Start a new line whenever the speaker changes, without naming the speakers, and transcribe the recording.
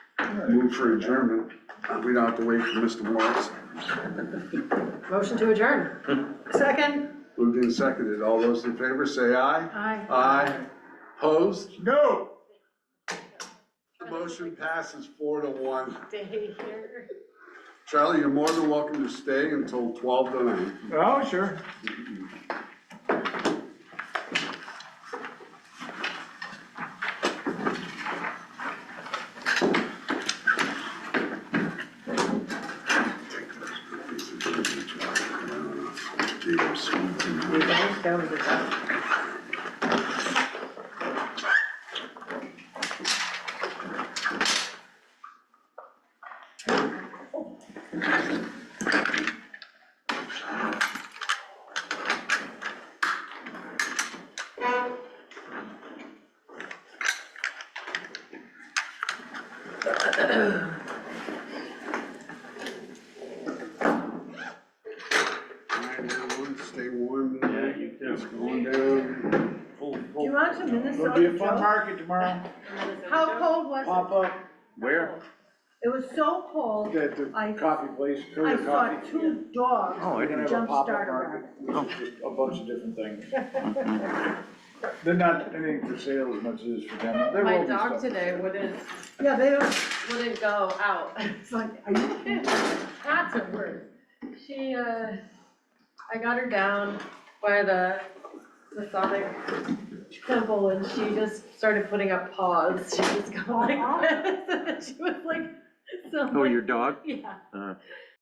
Move for adjournment. Uh, We don't have to wait for Mr. Morris.
Motion to adjourn. Second?
Moved and seconded. All those in favor say aye.
Aye.
Aye. Opposed? No. The motion passes four to one.
Stay here.
Charlie, you're more than welcome to stay until twelve to nine.
Oh, sure.
You guys go with it.
All right, everyone, stay warm.
Yeah, you too.
It's going down.
Full,
You
full.
want to
It'll be
Minnesota
a fun Um,
Joe?
market tomorrow,
How cold was
pop up
Where?
it? It was so cold,
at
I-
the coffee place,
I
Coda
saw
Coffee.
two dogs.
Oh, I
We're gonna
didn't.
have a
Jump
pop-up
starter
market, with just a bunch of different things. They're not anything for sale as much as for demo. There
My
will be
dog
stuff.
today wouldn't,
Yeah, they don't,
wouldn't go out.
it's like, are you kidding?
Cats are worse. She, uh, I got her down by the Masonic temple and she just started putting up paws. She was going like this. She was like, so.
Oh, your dog?
Yeah.
Uh.